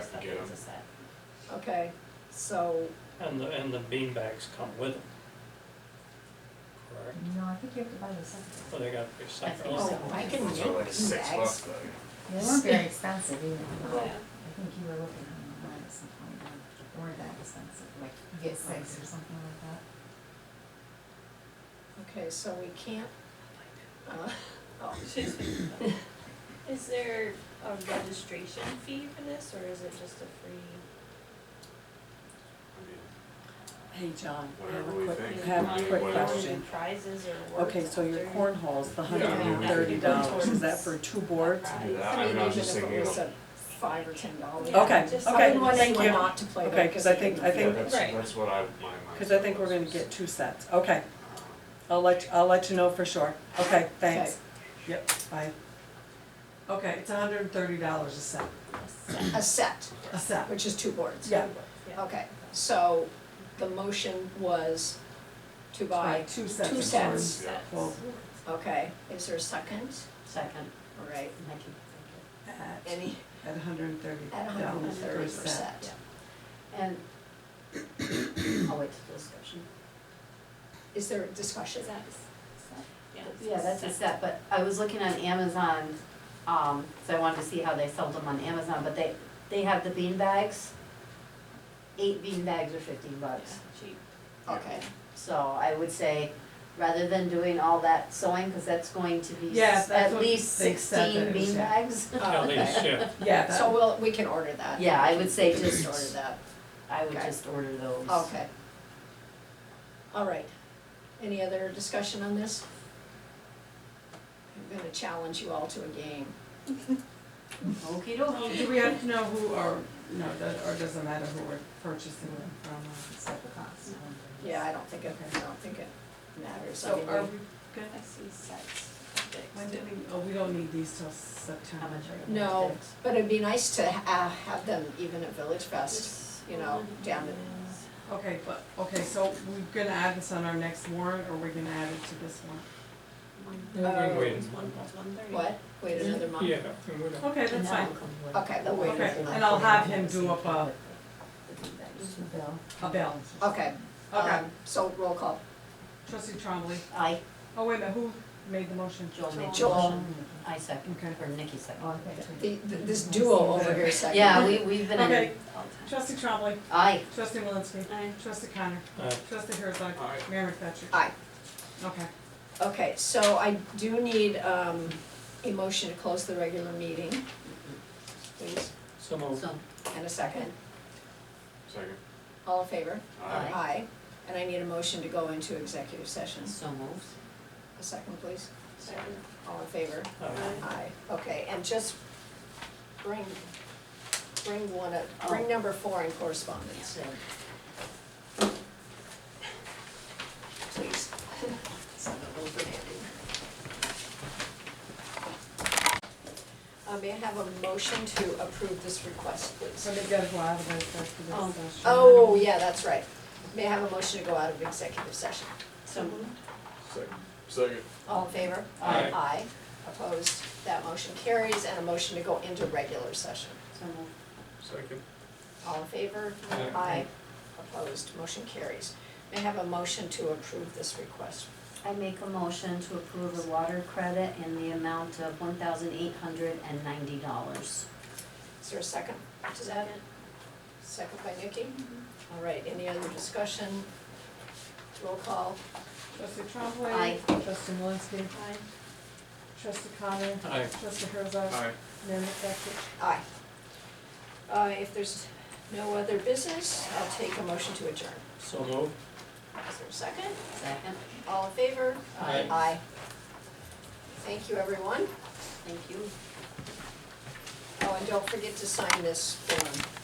it's a set. Okay, so, And the, and the bean bags come with them. Correct? No, I think you have to buy the separate. Or they gotta be separate? think oh, so. I can Those are make like six bucks bags. though. They weren't very expensive either. Yeah. I think you were looking online at some point, like, they weren't that expensive, like you get six or something like that. Okay, so we can't, uh, oh, She's figured it out. Is there a registration fee for this, or is it just a free? I mean, Hey, John, I have Whatever a we quick, think. I have I a mean, quick whatever. question. Prizes or awards Okay, so your after? cornhole's the hundred Yeah, I mean, and we thirty could do dollars, towards is that for two boards? Right. Do that, I I mean, mean, I was even just if thinking, it was of- a five or ten dollars. Yeah, Okay, just I okay, wouldn't want thank anyone you. not to play Okay, that, 'cause because I it think- would I be yeah, think- that's, Right. that's what I, my mind. Cause I think we're gonna get two sets, okay, I'll let, I'll let you know for sure, okay, thanks. Yep, bye. Okay, it's hundred and thirty dollars a set, A set. A set, a set, which is two boards. yeah, Yeah. Okay, so the motion was to buy, right, two sets. two of sets. boards. Sets. Well, okay, is there a second? Second, All right, thank you. at, any, at hundred and thirty at hundred and dollars per thirty set. percent. And I'll wait till discussion. Is there a discussion? Is that a s- set? Yeah, that's a set, but I was looking on Amazon, um, so I wanted to see how they sold them on Amazon, but they, they have the bean bags. Eight bean bags are fifteen bucks, Cheap. Okay, so I would say, rather than doing all that sewing, cause that's going to be Yeah, s- that's at what least they said that sixteen it was, bean yeah. bags. At Oh, least, yeah. Yeah, that- Uh, so we'll, we can order that. Yeah, I would say We can just- order that, I would Okay. just order those. okay. All right, any other discussion on this? I'm gonna challenge you all to a game. Okey Well, dokey. Do we have to know who or, no, that, or doesn't matter who we're purchasing them from, or it's at the cost? Yeah, I don't think it, I don't think it matters, I mean, So are we good? I see sets. When do we, oh, we don't need these till September. How much are we- No. but it'd be nice to ha- uh, have them even at Village Fest, This you know, one down in- is- Okay, but, okay, so we're gonna add this on our next warrant, or we're gonna add it to this one? One, Uh, Wait. it's one, that's one thirty. what, wait another month? Yeah, we would have- Okay, that's fine, Okay, we'll wait Okay, and I'll have him do up a- Bill. a bill. Okay, Okay, um, so roll call, trustee Trombley, I, oh, wait a minute, who made the motion? Joel made the Joel. motion, I second, Okay. or Nikki second. the, th- this duo over here second. Yeah, we, we've been in, Okay, All the time. trustee Trombley, I, trustee Malinsky, Aye. trustee Connor, Aye. trustee Herzog, Aye. Mayor McFetrich. Aye. Okay, Okay, so I do need, um, a motion to close the regular meeting, please, So moved. so, and a second, Second. all in favor? Aye. and I need a motion to go into executive session, so moves. a second, please, Second. all in favor? Uh, Aye, okay, and just bring, bring one, of- bring number four in correspondence, So, please. It's not overhanded. Uh, may I have a motion to approve this request, please? so they gotta go out of this, that's the Oh. discussion. Oh, yeah, that's right. May I have a motion to go out of executive session? so moved. Second. Second. All in favor? Aye. Aye. Opposed? That motion carries, and a motion to go into regular session. so moved. Second. All in favor? Aye. Opposed? Motion carries. May I have a motion to approve this request? I make a motion to approve the water credit in the amount of one thousand eight hundred and ninety dollars. Is there a second to that? Second by Nikki? All right, any other discussion? Roll call. Trustee Trombley. Aye. Trustee Malinsky. Aye. Trustee Connor. Aye. Trustee Herzog. Aye. Mayor McFetrich. Aye. Uh, if there's no other business, I'll take a motion to adjourn. So moved. Is there a second? Second, All in favor? Aye. Aye. Thank you, everyone. thank you. Oh, and don't forget to sign this form.